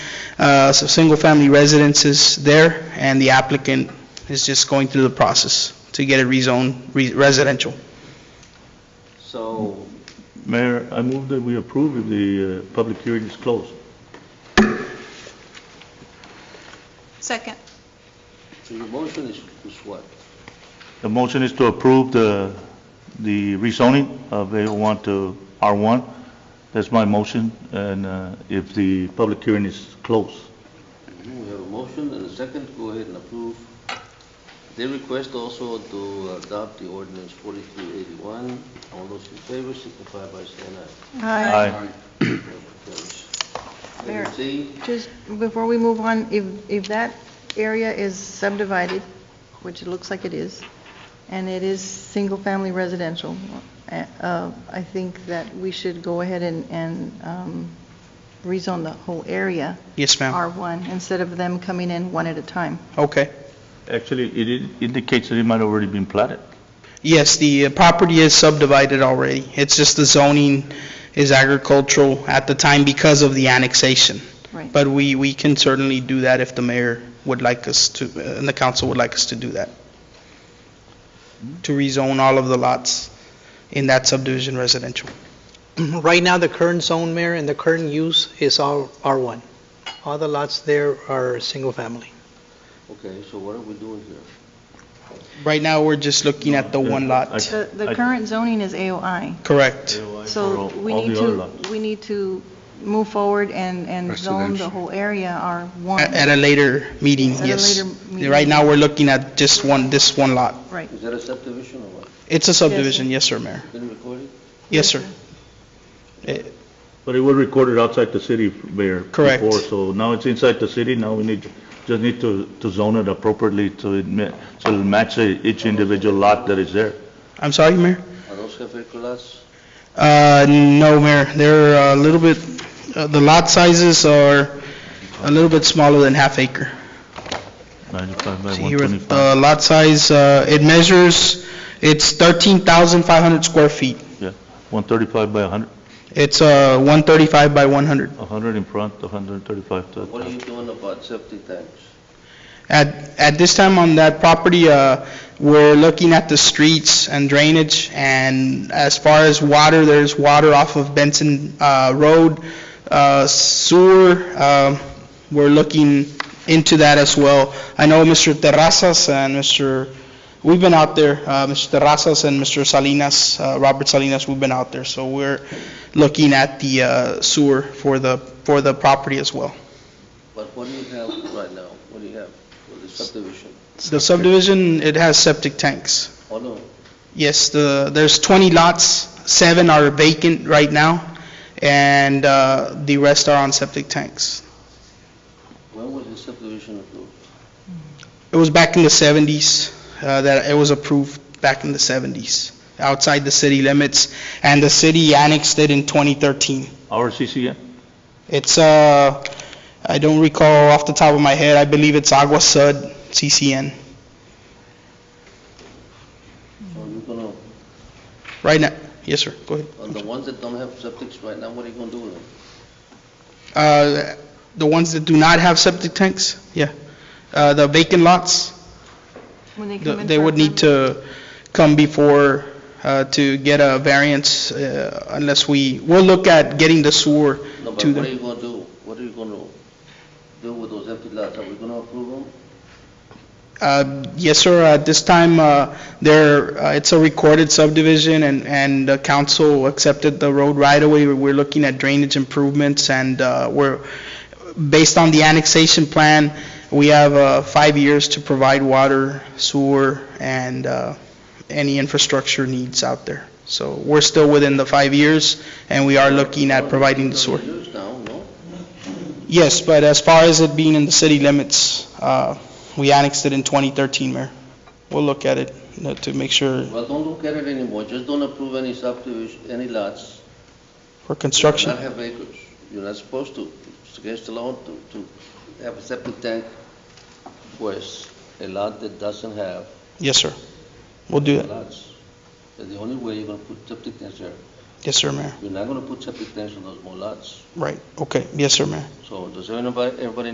uh, some single-family residences there, and the applicant is just going through the process to get it rezoned re- residential. So, Mayor, I move that we approve if the uh, public hearing is closed. Second. so your motion is, is what? The motion is to approve the, the rezoning of A1 to R1. That's my motion, and uh, if the public hearing is closed. Mm-hmm, We have a motion and a second, go ahead and approve. They request also to adopt the ordinance 4381. All those in favor signify by saying aye. Aye. Motion carries. Mayor. Item C, Just before we move on, if, if that area is subdivided, which it looks like it is, and it is single-family residential, uh, uh, I think that we should go ahead and, and um, rezone the whole area, Yes, ma'am? R1, instead of them coming in one at a time. Okay. Actually, it in- indicates that it might already been platted. Yes, the uh, property is subdivided already. It's just the zoning is agricultural at the time because of the annexation. Right. But we, we can certainly do that if the mayor would like us to, uh, and the council would like us to do that. To rezone all of the lots in that subdivision residential. Right now, the current zone, Mayor, and the current use is R- R1. All the lots there are single-family. okay, so what are we doing here? Right now, we're just looking at the one lot. The, the I- current zoning is AOI, Correct. so For all- we all need the other to, lots. we need to move forward and, and zone the Residential. whole area R1. At at a later meeting, At a yes. later meeting. Right now, we're looking at just one, this one lot. Right. Is that a subdivision or what? It's a subdivision, yes, sir, Mayor. Been recorded? Yes, sir. Eh, But it was recorded outside the city, Mayor. Correct. Before, so now it's inside the city, now we need, just need to, to zone it appropriately to admit, so it'll match each individual lot that is there. I'm sorry, Mayor? Are those Jefe lots? Uh, no, Mayor, they're a little bit, uh, the lot sizes are a little bit smaller than half acre. 95 by See here with 125. the lot size, uh, it measures, it's 13,500 square feet. Yeah, 135 by 100, It's uh, 135 by 100. 100 in front, 135 to... What are you doing about septic tanks? At, at this time on that property, uh, we're looking at the streets and drainage, and as far as water, there's water off of Benson uh, Road. Uh, Sewer, um, we're looking into that as well. I know Mr. Terrazas and Mr., we've been out there, uh, Mr. Terrazas and Mr. Salinas, uh, Robert Salinas, we've been out there, so we're looking at the uh, sewer for the, for the property as well. But what do you have right now? What do you have for the subdivision? The subdivision, it has septic tanks. Oh, no, Yes, the, there's 20 lots, seven are vacant right now, and uh, the rest are on septic tanks. when was the subdivision approved? It was back in the 70s uh, that it was approved, back in the 70s, outside the city limits, and the city annexed it in 2013. Our CCN? It's, uh, I don't recall off the top of my head, I believe it's Agua Sud CCN. So you're gonna, Right now, yes, sir, go ahead. on the ones that don't have septics right now, what are you gonna do with them? Uh, The ones that do not have septic tanks, yeah. Uh, The vacant lots, When they come in They for a would need permit. to come before uh, to get a variance uh, unless we, we'll look at getting the sewer No, but to what are you them. gonna do? What are you gonna do with those empty lots? Are we gonna approve them? Uh, Yes, sir, at this time, uh, there, uh, it's a recorded subdivision and, and the council accepted the road right away. We're looking at drainage improvements and uh, we're, based on the annexation plan, we have uh, five years to provide water, sewer, and uh, any infrastructure needs out there. So we're still within the five years, and we are looking at providing the sewer. They're used now, no? Yes, but as far as it being in the city limits, uh, we annexed it in 2013, Mayor. We'll look at it you know, to make sure Well, don't look at it anymore. Just don't approve any subdivision, any lots. for that construction. Not have acres. You're not supposed to. It's against the law to, to have a septic tank for a s- a lot that doesn't have Yes, sir. We'll do that. lots. That's the only way you're gonna put septic tanks there. Yes, sir, Mayor. You're not gonna put septic tanks on those small lots. Right, okay. Yes, sir, Mayor. So does everybody, everybody